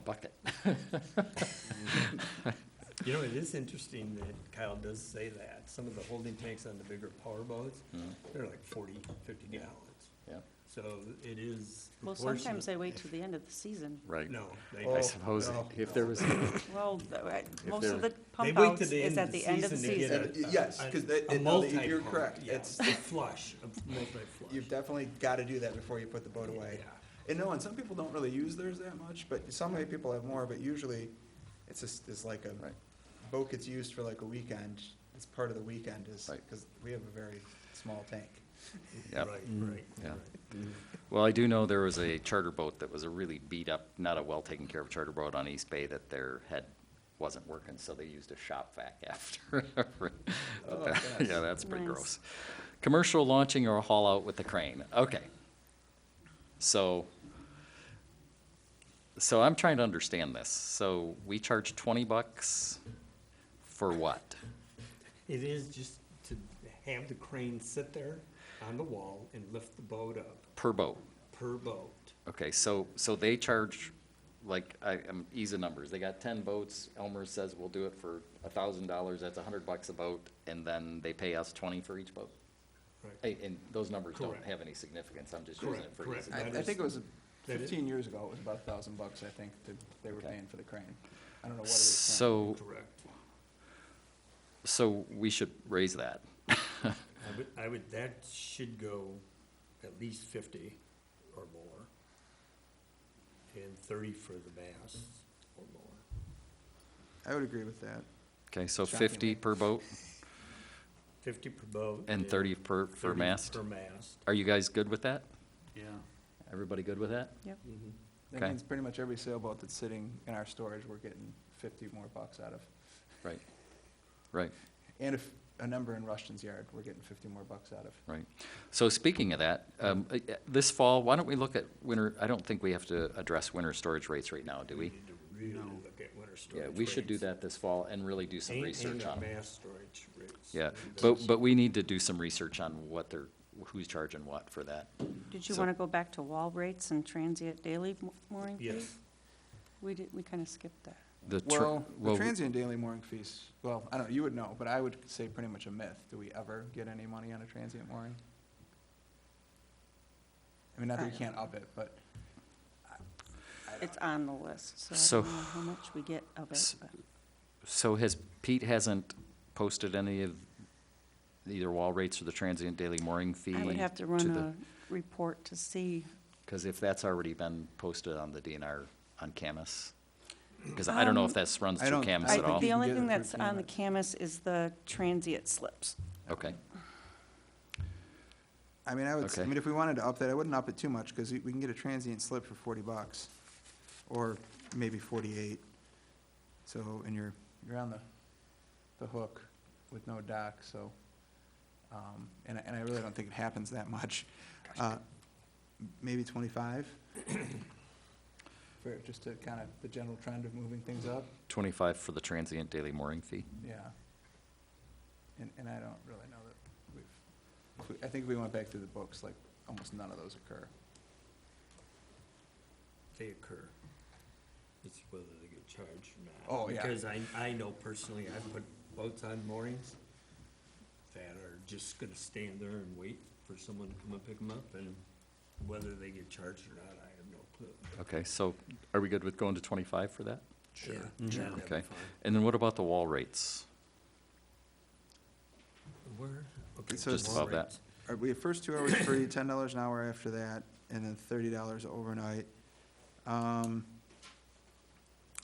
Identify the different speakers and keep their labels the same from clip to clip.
Speaker 1: bucket.
Speaker 2: You know, it is interesting that Kyle does say that. Some of the holding tanks on the bigger power boats, they're like 40, 50 gallons.
Speaker 1: Hmm. Yeah,
Speaker 2: So it is
Speaker 3: Well,
Speaker 2: proportionate.
Speaker 3: sometimes they wait till the end of the season.
Speaker 4: right.
Speaker 2: No. they
Speaker 1: I
Speaker 2: don't.
Speaker 1: suppose
Speaker 2: No,
Speaker 1: if there
Speaker 2: no.
Speaker 1: was,
Speaker 3: Well, th- I- most of
Speaker 1: they're-
Speaker 3: the
Speaker 2: They
Speaker 3: pump
Speaker 2: wait
Speaker 3: outs
Speaker 2: till the
Speaker 3: is
Speaker 2: end
Speaker 3: at
Speaker 2: of
Speaker 3: the end of the
Speaker 2: to get
Speaker 3: season.
Speaker 2: a-
Speaker 5: Y- yes,
Speaker 2: a-
Speaker 5: 'cause they-
Speaker 2: a
Speaker 5: it- no, they- you're
Speaker 2: multi-pump,
Speaker 5: correct.
Speaker 2: yeah,
Speaker 5: It's-
Speaker 2: a flush, a multi-flush.
Speaker 5: You've definitely got to do that before you put the boat away.
Speaker 2: Yeah.
Speaker 5: And no, and some people don't really use theirs that much, but some way people have more, but usually it's just, it's like a,
Speaker 1: Right.
Speaker 5: boat gets used for like a weekend, it's part of the weekend is,
Speaker 1: Right.
Speaker 5: because we have a very small tank.
Speaker 1: yeah.
Speaker 2: Right, right,
Speaker 1: Mm-hmm. Yeah.
Speaker 2: right.
Speaker 4: Well, I do know there was a charter boat that was a really beat up, not a well taken care of charter boat on East Bay that their head wasn't working, so they used a shop vac after. But
Speaker 5: Oh,
Speaker 4: that-
Speaker 5: gosh.
Speaker 4: Yeah, that's pretty
Speaker 3: Nice.
Speaker 4: gross. Commercial launching or haul out with the crane, okay. So, so I'm trying to understand this. So we charge twenty bucks for what?
Speaker 2: It is just to have the crane sit there on the wall and lift the boat up
Speaker 4: Per boat?
Speaker 2: per boat.
Speaker 4: Okay, so, so they charge, like, I, I'm easy numbers, they got ten boats, Elmer says we'll do it for a thousand dollars, that's a hundred bucks a boat, and then they pay us twenty for each boat?
Speaker 2: Right.
Speaker 4: And, and those numbers don't
Speaker 2: Correct.
Speaker 4: have any significance, I'm just using
Speaker 2: Correct,
Speaker 4: it for
Speaker 2: correct.
Speaker 4: easy.
Speaker 2: I- I That think it is-
Speaker 5: was
Speaker 2: that is- 15
Speaker 5: years ago, it was about a thousand bucks, I think, that they were
Speaker 4: Okay. paying
Speaker 5: for the crane. I don't know what
Speaker 4: So,
Speaker 2: Correct.
Speaker 4: so we should raise that,
Speaker 2: I would, I would, that should go at least fifty or more. And thirty for the bass or more.
Speaker 5: I would agree with that.
Speaker 4: okay, so
Speaker 5: Shockingly.
Speaker 4: fifty per boat
Speaker 2: Fifty per boat.
Speaker 4: and thirty per, per
Speaker 2: 30
Speaker 4: mast?
Speaker 2: Per mast.
Speaker 4: Are you guys good with that?
Speaker 6: Yeah,
Speaker 4: Everybody good with that?
Speaker 3: Yep.
Speaker 4: That Okay. means
Speaker 5: pretty much every sailboat that's sitting in our storage, we're getting fifty more bucks out of.
Speaker 4: Right, right.
Speaker 5: And if a number in Rushton's yard, we're getting fifty more bucks out of.
Speaker 4: Right. So speaking of that, um, uh, uh, this fall, why don't we look at winter, I don't think we have to address winter storage rates right now, do we?
Speaker 2: need to really look at winter storage
Speaker 4: Yeah, we should do
Speaker 2: rates.
Speaker 4: that this fall and really do some
Speaker 2: And-
Speaker 4: research on
Speaker 2: And the
Speaker 4: it.
Speaker 2: mast storage rates.
Speaker 4: Yeah,
Speaker 2: Those-
Speaker 4: but, but we need to do some research on what they're, who's charging what for that.
Speaker 3: Did you
Speaker 4: So-
Speaker 3: want to go back to wall rates and transient daily mo- mooring fees?
Speaker 2: Yes,
Speaker 3: We did, we kind of skipped that.
Speaker 4: The tr-
Speaker 5: Well, the
Speaker 4: well,
Speaker 5: transient daily mooring fees, well, I don't, you would know, but I would say pretty much a myth. Do we ever get any money on a transient mooring? I mean, not that we can't up it, but
Speaker 3: It's on the list, so
Speaker 4: So-
Speaker 3: I don't know how much we get of it,
Speaker 4: S-
Speaker 3: but
Speaker 4: So has, Pete hasn't posted any of either wall rates or the transient daily mooring fee?
Speaker 3: I would have to run a report to see.
Speaker 4: Because if that's already been posted on the DNR, on Camus, because I don't know if
Speaker 3: Um,
Speaker 4: that's runs
Speaker 5: I
Speaker 4: through
Speaker 5: don't-
Speaker 4: Camus
Speaker 5: I
Speaker 4: at
Speaker 3: I-
Speaker 4: all.
Speaker 5: think
Speaker 3: The
Speaker 5: you
Speaker 3: only
Speaker 5: can get
Speaker 3: thing
Speaker 5: it through
Speaker 3: that's on the CAMUS is the transient slips.
Speaker 4: Okay,
Speaker 5: I mean, I would, s- I
Speaker 4: Okay.
Speaker 5: mean, if we wanted to up that, I wouldn't up it too much because we can get a transient slip for forty bucks or maybe forty-eight. So, and you're, you're on the, the hook with no dock, so, um, and, I- and I really don't think it happens that much. Uh, Maybe twenty-five? For, just to kind of, the general trend of moving things up,
Speaker 4: twenty-five for the transient daily mooring fee.
Speaker 5: yeah. And, and I don't really know that we've, if we- I think if we went back through the books, like, almost none of those occur.
Speaker 2: they occur. It's whether they get charged or not.
Speaker 5: Oh, yeah.
Speaker 2: Because I, I know personally, I've put boats on moorings that are just gonna stand there and wait for someone to come and pick them up, and whether they get charged or not, I have no clue.
Speaker 4: Okay, so are we good with going to twenty-five for that?
Speaker 2: Sure.
Speaker 4: Mm-hmm. Okay. And then what about the wall rates?
Speaker 2: Where? Okay,
Speaker 5: So Just
Speaker 2: wall
Speaker 4: above that.
Speaker 2: rates.
Speaker 5: All right, we have first two hours free, ten dollars an hour after that, and then thirty dollars overnight. Um,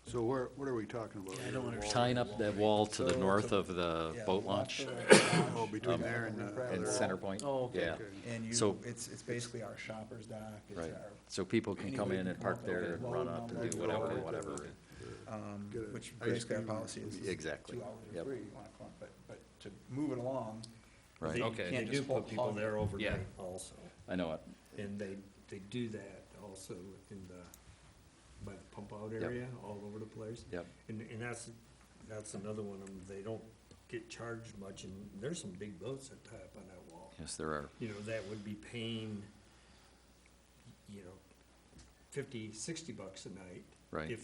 Speaker 6: so where, what are we talking about?
Speaker 2: Yeah, I don't
Speaker 6: here? The
Speaker 4: Tying up the wall to the
Speaker 5: So-
Speaker 4: north of the
Speaker 5: yeah,
Speaker 4: boat
Speaker 5: left
Speaker 4: launch
Speaker 5: over.
Speaker 6: wall? Oh,
Speaker 2: Um,
Speaker 6: between there and the.
Speaker 4: and
Speaker 6: other
Speaker 4: center
Speaker 6: wall?
Speaker 4: point?
Speaker 2: Oh, okay,
Speaker 4: Yeah,
Speaker 6: Okay.
Speaker 5: And you,
Speaker 4: So-
Speaker 5: it's, it's basically our shopper's dock, it's
Speaker 4: right.
Speaker 5: our,
Speaker 4: So people can come
Speaker 5: Anybody
Speaker 4: in
Speaker 5: can
Speaker 4: and
Speaker 5: come
Speaker 4: park
Speaker 5: up with
Speaker 4: there
Speaker 5: a
Speaker 4: and
Speaker 5: wall
Speaker 4: run up
Speaker 5: number.
Speaker 4: and do whatever,
Speaker 6: Okay.
Speaker 4: whatever.
Speaker 5: um,
Speaker 6: Get a
Speaker 5: which
Speaker 6: ice
Speaker 5: basically our
Speaker 6: cream or
Speaker 5: policy is is
Speaker 4: Exactly,
Speaker 5: two hours or
Speaker 4: yep.
Speaker 5: three, you wanna clump, but, but to move it along,
Speaker 4: Right,
Speaker 2: They-
Speaker 4: okay,
Speaker 2: They
Speaker 5: Can't
Speaker 2: do
Speaker 5: just
Speaker 2: put people
Speaker 5: hog it.
Speaker 2: there
Speaker 4: Yeah.
Speaker 2: overnight also,
Speaker 4: I know it.
Speaker 2: and they, they do that also in the, by the pump out
Speaker 4: Yep.
Speaker 2: area, all over the place.
Speaker 4: Yep,
Speaker 2: And, and that's, that's another one of them, they don't get charged much, and there's some big boats that tie up on that wall.
Speaker 4: yes, there are.
Speaker 2: You know, that would be paying, you know, fifty, sixty bucks a night.
Speaker 4: Right.
Speaker 2: If